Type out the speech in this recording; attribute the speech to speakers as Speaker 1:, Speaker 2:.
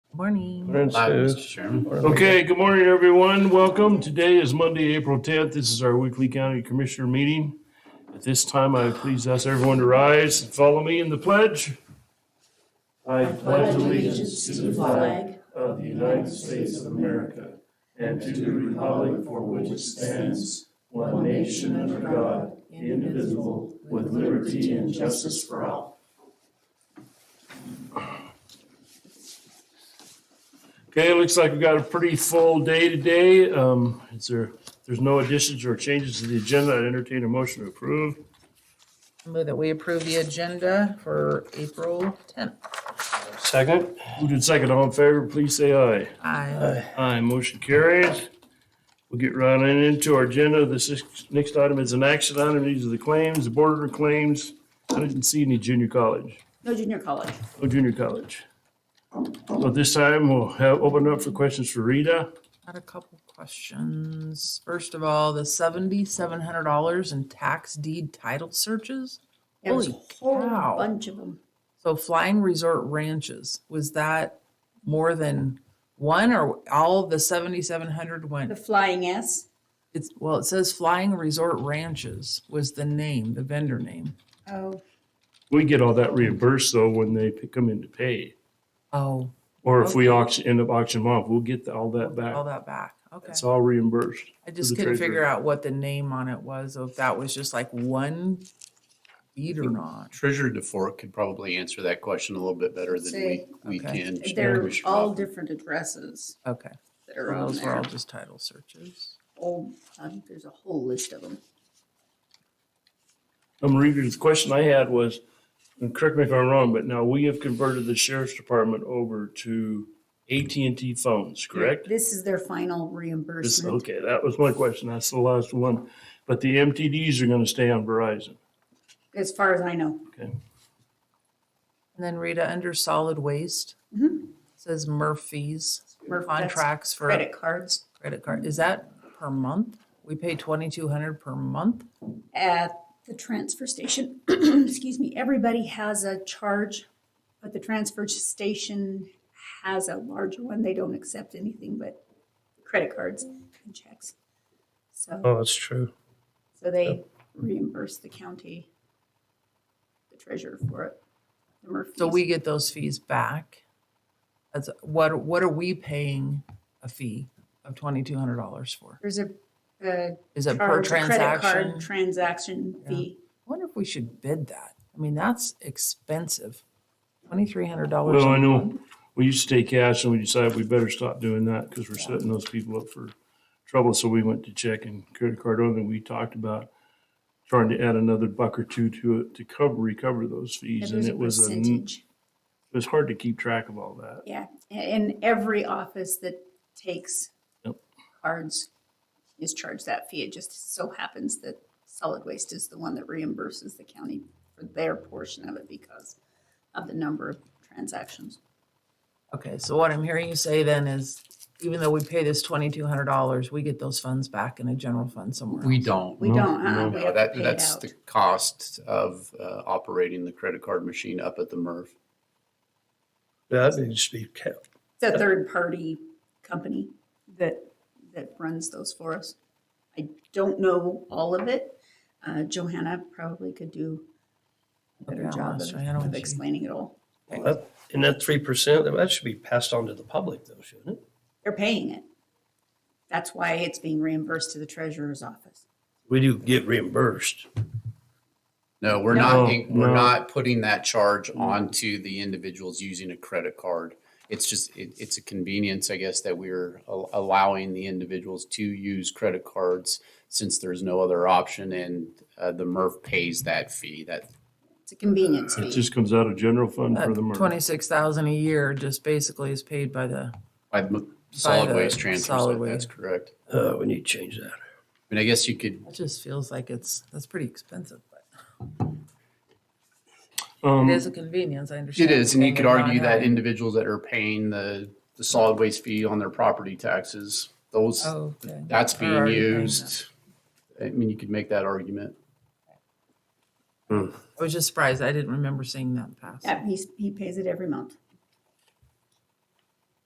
Speaker 1: Morning.
Speaker 2: Morning,
Speaker 3: Hi, Mr.
Speaker 2: Stu.
Speaker 3: Chairman.
Speaker 4: Okay, good morning, everyone. Welcome. Today is Monday, April 10th. This is our weekly county commissioner meeting. At this time, I please ask everyone to rise and follow me in the pledge. I pledge allegiance to the flag of the United States of America and to the republic for which it stands, one nation under God, indivisible, with liberty and justice for all. Okay, it looks like we've got a pretty full day today. Um, Is there, if there's no additions or changes to the agenda, I'd entertain a motion to approve.
Speaker 1: Move that we approve the agenda for April 10th.
Speaker 2: Second?
Speaker 4: Who did second, all in favor, please say aye.
Speaker 1: Aye.
Speaker 4: Aye, motion carries. We'll get right on into our agenda. The six- next item is an action item. These are the claims, the border claims. I didn't see any junior college,
Speaker 5: No junior college.
Speaker 4: no junior college. So at this time, we'll have, open up for questions for Rita.
Speaker 1: Got a couple questions. First of all, the $7,700 in tax deed title searches?
Speaker 5: There was a
Speaker 1: Holy
Speaker 5: whole
Speaker 1: cow.
Speaker 5: bunch of them.
Speaker 1: So Flying Resort Ranches, was that more than one or all of the 7,700
Speaker 5: The
Speaker 1: went?
Speaker 5: Flying S.
Speaker 1: It's, well, it says Flying Resort Ranches was the name, the vendor name.
Speaker 5: Oh,
Speaker 4: We get all that reimbursed though when they come in to pay.
Speaker 1: Oh,
Speaker 4: Or if we auction, end up auctioning them off, we'll get the- all that
Speaker 1: all
Speaker 4: back.
Speaker 1: that back. Okay.
Speaker 4: It's all reimbursed.
Speaker 1: I
Speaker 4: to
Speaker 1: just
Speaker 4: the
Speaker 1: couldn't
Speaker 4: treasurer.
Speaker 1: figure out what the name on it was, or if that was just like one bead or not.
Speaker 3: Treasurer DeFork could probably answer that question a little bit better than we,
Speaker 5: Say,
Speaker 3: we
Speaker 1: okay.
Speaker 3: can.
Speaker 5: they're
Speaker 3: Commissioner
Speaker 5: all
Speaker 3: Hoffman.
Speaker 5: different addresses
Speaker 1: Okay,
Speaker 5: that are
Speaker 1: so
Speaker 5: on
Speaker 1: those were all
Speaker 5: there.
Speaker 1: just title searches.
Speaker 5: Oh, um, there's a whole list of them.
Speaker 4: Um, Reader's question I had was, and correct me if I'm wrong, but now we have converted the sheriff's department over to AT&T phones, correct?
Speaker 5: This is their final
Speaker 4: This-
Speaker 5: reimbursement.
Speaker 4: Okay, that was my question. That's the last one. But the MTDs are going to stay on Verizon.
Speaker 5: As far as I know,
Speaker 4: Okay.
Speaker 1: And then Rita, under solid waste, says Murphy's
Speaker 5: Murph, Mm-hmm. that's
Speaker 1: contracts for
Speaker 5: credit cards
Speaker 1: credit card. Is that per month? We pay twenty-two hundred per month?
Speaker 5: at the transfer station. Excuse me, everybody has a charge, but the transfer station has a larger one. They don't accept anything but credit cards and checks. So.
Speaker 2: Oh, that's true.
Speaker 5: So they reimburse the county, the treasurer for it. the Murphys.
Speaker 1: So we get those fees back. That's, what, what are we paying a fee of twenty-two hundred dollars for?
Speaker 5: There's a, a
Speaker 1: Is it per
Speaker 5: charge, a credit card
Speaker 1: transaction?
Speaker 5: transaction fee.
Speaker 1: I wonder if we should bid that. I mean, that's expensive. Twenty-three hundred dollars.
Speaker 4: Well, I know, we used to take cash and we decided we better stop doing that because we're setting those people up for trouble. So we went to check and credit card only. We talked about trying to add another buck or two to it to cover, recover those
Speaker 5: And
Speaker 4: fees. And
Speaker 5: there's a
Speaker 4: it was, a n-
Speaker 5: percentage.
Speaker 4: it was hard to keep track of all that.
Speaker 5: Yeah, a- and every office that takes
Speaker 4: Yep.
Speaker 5: cards is charged that fee. It just so happens that solid waste is the one that reimburses the county for their portion of it because of the number of transactions.
Speaker 1: Okay, so what I'm hearing you say then is even though we pay this twenty-two hundred dollars, we get those funds back in a general fund somewhere.
Speaker 3: We
Speaker 1: else.
Speaker 3: don't.
Speaker 5: We don't, huh? We
Speaker 3: No,
Speaker 5: have to
Speaker 3: that,
Speaker 5: pay it
Speaker 3: that's
Speaker 5: out.
Speaker 3: the cost of, uh, operating the credit card machine up at the MERV.
Speaker 2: That needs to be kept.
Speaker 5: the third party company that, that runs those for us. I don't know all of it. Uh, Johanna probably could do a
Speaker 1: Okay,
Speaker 5: better
Speaker 1: I'll
Speaker 5: job
Speaker 1: ask
Speaker 5: of-
Speaker 1: Johanna when
Speaker 5: of
Speaker 1: she-
Speaker 5: explaining it all.
Speaker 2: That- And that three percent, that should be passed on to the public though, shouldn't it?
Speaker 5: They're paying it. That's why it's being reimbursed to the treasurer's office.
Speaker 2: We do get reimbursed.
Speaker 3: No, we're
Speaker 4: No,
Speaker 3: not, in- we're
Speaker 4: no.
Speaker 3: not putting that charge onto the individuals using a credit card. It's just, it, it's a convenience, I guess, that we're al- allowing the individuals to use credit cards since there's no other option and, uh, the MERV pays that fee, that
Speaker 5: It's a convenience
Speaker 4: It
Speaker 5: fee.
Speaker 4: just comes out of general fund for
Speaker 1: That
Speaker 4: the MERV.
Speaker 1: twenty-six thousand a year just basically is paid by the,
Speaker 3: By m- solid
Speaker 1: the
Speaker 3: waste transfers,
Speaker 1: solid
Speaker 3: that- that's
Speaker 1: waste.
Speaker 3: correct.
Speaker 2: Uh, we need to change that.
Speaker 3: I mean, I guess you could,
Speaker 1: it just feels like it's, that's pretty expensive, but
Speaker 4: Um,
Speaker 1: it is a convenience, I understand.
Speaker 3: it is, and you
Speaker 1: paying
Speaker 3: could
Speaker 1: it
Speaker 3: argue that
Speaker 1: non-having-
Speaker 3: individuals that are paying the, the solid waste fee on their property taxes, those,
Speaker 1: Oh, okay.
Speaker 3: that's
Speaker 1: Or
Speaker 3: being
Speaker 1: already paying that.
Speaker 3: used. I mean, you could make that argument.
Speaker 1: I was just surprised. I didn't remember seeing that pass.
Speaker 5: Yeah, he's, he pays it every month.